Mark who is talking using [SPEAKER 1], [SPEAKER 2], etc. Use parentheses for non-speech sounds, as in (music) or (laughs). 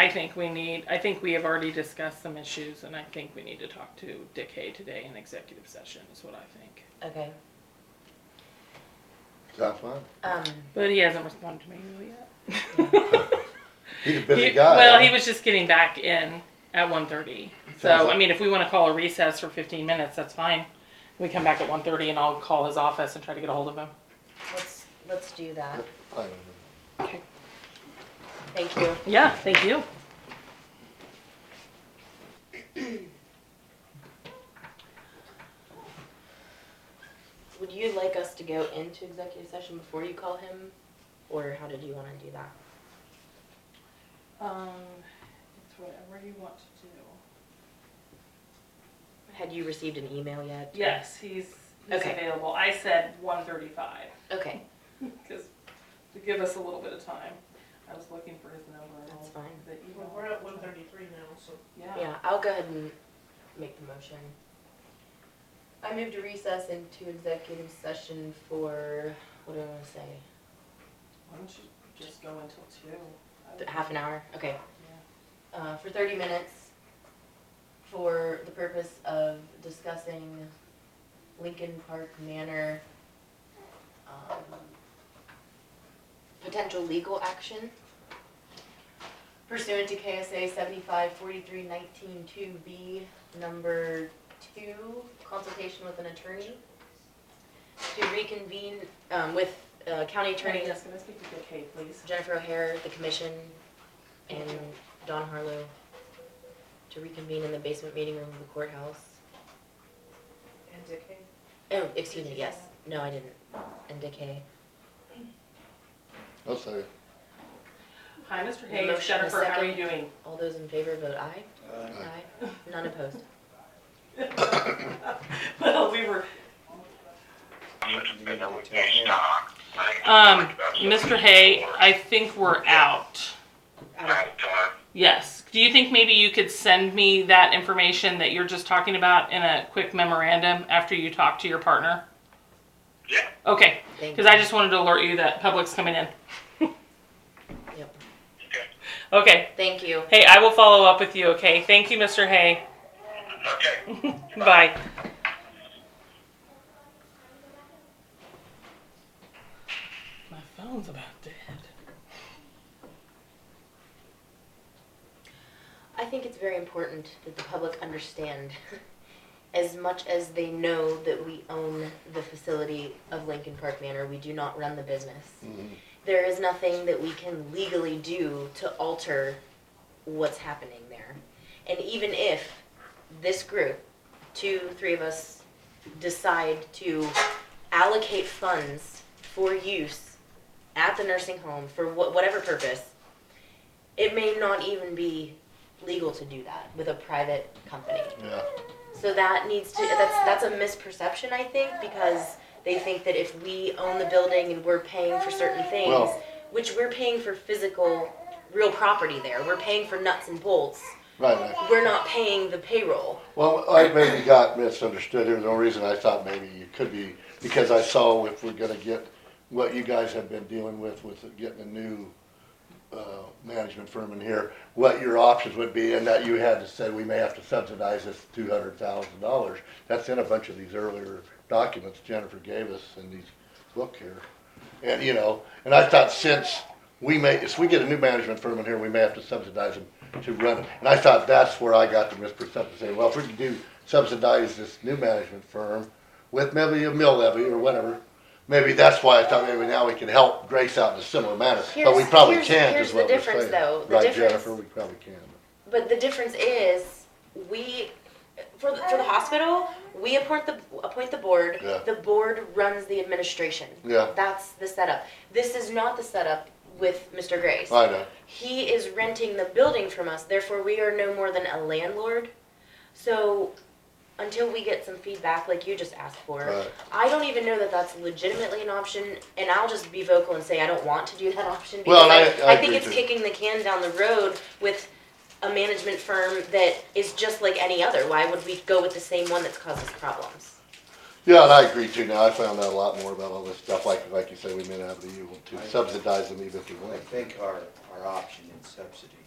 [SPEAKER 1] I think we need, I think we have already discussed some issues and I think we need to talk to Dick Hay today in executive session is what I think.
[SPEAKER 2] Okay,
[SPEAKER 3] That's fine.
[SPEAKER 2] um,
[SPEAKER 1] But he hasn't responded to me really yet.
[SPEAKER 3] He's a (laughs) busy
[SPEAKER 1] He-
[SPEAKER 3] guy.
[SPEAKER 1] Well,
[SPEAKER 3] huh?
[SPEAKER 1] he was just getting back in at one thirty.
[SPEAKER 3] Sounds
[SPEAKER 1] So, I
[SPEAKER 3] like-
[SPEAKER 1] mean, if we wanna call a recess for fifteen minutes, that's fine. We come back at one thirty and I'll call his office and try to get a hold of him.
[SPEAKER 2] let's, let's do that.
[SPEAKER 3] I don't know.
[SPEAKER 1] Okay.
[SPEAKER 2] Thank you.
[SPEAKER 1] Yeah, thank you.
[SPEAKER 2] Would you like us to go into executive session before you call him? Or how did you wanna do that?
[SPEAKER 1] Um, it's whatever you want to do.
[SPEAKER 2] Had you received an email yet?
[SPEAKER 1] Yes, he's, he's
[SPEAKER 2] Okay.
[SPEAKER 1] available. I said one thirty-five.
[SPEAKER 2] Okay,
[SPEAKER 1] Because to give us a little bit of time, I was looking for his number. and all
[SPEAKER 2] That's fine.
[SPEAKER 1] that you
[SPEAKER 4] Well,
[SPEAKER 1] all-
[SPEAKER 4] we're at one thirty-three now, so
[SPEAKER 1] Yeah.
[SPEAKER 2] yeah, I'll go ahead and make the motion. I move to recess into executive session for, what do I wanna say,
[SPEAKER 1] Why don't you just go until two? I would-
[SPEAKER 2] half an hour? Okay.
[SPEAKER 1] yeah.
[SPEAKER 2] uh, for thirty minutes for the purpose of discussing Lincoln Park Manor, um, potential legal action pursuant to KSA seventy-five forty-three nineteen two B, number two, consultation with an attorney to reconvene, um, with, uh, county attorney
[SPEAKER 1] Attorney, yes, can I speak to Dick Hay, please?
[SPEAKER 2] Jennifer O'Hare, the commission,
[SPEAKER 1] Thank
[SPEAKER 2] and
[SPEAKER 1] you.
[SPEAKER 2] Don Harlow to reconvene in the basement meeting room of the courthouse.
[SPEAKER 4] and decay.
[SPEAKER 2] Oh, excuse me, yes. No, I didn't. And Decay.
[SPEAKER 3] I'll say,
[SPEAKER 1] Hi, Mr.
[SPEAKER 2] The
[SPEAKER 1] Hay, it's
[SPEAKER 2] motion is
[SPEAKER 1] Jennifer, how are you
[SPEAKER 2] second.
[SPEAKER 1] doing? (laughs)
[SPEAKER 2] All those in favor vote aye.
[SPEAKER 3] Aye.
[SPEAKER 2] None opposed.
[SPEAKER 1] Well, we were. Um,
[SPEAKER 5] Um,
[SPEAKER 1] Mr. Hay, I think we're out.
[SPEAKER 2] Out of-
[SPEAKER 1] Yes. Do you think maybe you could send me that information that you're just talking about in a quick memorandum after you talk to your partner?
[SPEAKER 5] Yeah,
[SPEAKER 1] Okay,
[SPEAKER 2] Thank
[SPEAKER 1] Because I
[SPEAKER 2] you.
[SPEAKER 1] just wanted to alert you that public's coming in.
[SPEAKER 2] Yep.
[SPEAKER 1] Okay.
[SPEAKER 2] Thank you.
[SPEAKER 1] Hey, I will follow up with you, okay? Thank you, Mr. (laughs) Hay.
[SPEAKER 5] okay.
[SPEAKER 1] Bye. My phone's about dead.
[SPEAKER 2] I think it's very important that the public understand, (laughs) as much as they know that we own the facility of Lincoln Park Manor, we do not run the business.
[SPEAKER 3] Mhm.
[SPEAKER 2] There is nothing that we can legally do to alter what's happening there. And even if this group, two, three of us, decide to allocate funds for use at the nursing home for wha- whatever purpose, it may not even be legal to do that with a private company.
[SPEAKER 3] yeah.
[SPEAKER 2] So that needs to that's that's a misperception I think because they think that if we own the building and we're paying for certain things,
[SPEAKER 3] Well-
[SPEAKER 2] which we're paying for physical real property there. We're paying for nuts and bolts.
[SPEAKER 3] Right, right.
[SPEAKER 2] We're not paying the payroll.
[SPEAKER 3] Well, I maybe got misunderstood. There was no reason I thought maybe you could be, because I saw if we're gonna get what you guys have been dealing with, with getting a new, uh, management firm in here, what your options would be, and that you had to say, we may have to subsidize this two hundred thousand dollars. That's in a bunch of these earlier documents Jennifer gave us in these book here. And, you know, and I thought since we may, if we get a new management firm in here, we may have to subsidize them to run it. And I thought that's where I got the misperception, saying, well, if we can do, subsidize this new management firm with maybe a mill levy or whatever, maybe that's why I thought maybe now we can help Grace out in a similar manner. But we
[SPEAKER 2] Here's-
[SPEAKER 3] probably
[SPEAKER 2] here's-
[SPEAKER 3] can't
[SPEAKER 2] here's
[SPEAKER 3] is
[SPEAKER 2] the
[SPEAKER 3] what we're saying.
[SPEAKER 2] difference, though. The
[SPEAKER 3] Right,
[SPEAKER 2] difference-
[SPEAKER 3] Jennifer, we probably can.
[SPEAKER 2] But the difference is we for the, for the hospital, we appoint the appoint the board.
[SPEAKER 3] Yeah.
[SPEAKER 2] The board runs the administration.
[SPEAKER 3] Yeah,
[SPEAKER 2] That's the setup. This is not the setup with Mr. Grace.
[SPEAKER 3] I know.
[SPEAKER 2] He is renting the building from us, therefore we are no more than a landlord. So until we get some feedback like you just asked for,
[SPEAKER 3] Right.
[SPEAKER 2] I don't even know that that's legitimately an option, and I'll just be vocal and say I don't want to do that option because
[SPEAKER 3] Well, I- I
[SPEAKER 2] think
[SPEAKER 3] agree
[SPEAKER 2] it's
[SPEAKER 3] too.
[SPEAKER 2] kicking the can down the road with a management firm that is just like any other. Why would we go with the same one that's caused us problems?
[SPEAKER 3] Yeah, and I agree too. Now, I found out a lot more about all this stuff, like, like you say, we may not be able to subsidize them even if we
[SPEAKER 6] I
[SPEAKER 3] want.
[SPEAKER 6] think our, our option in subsidy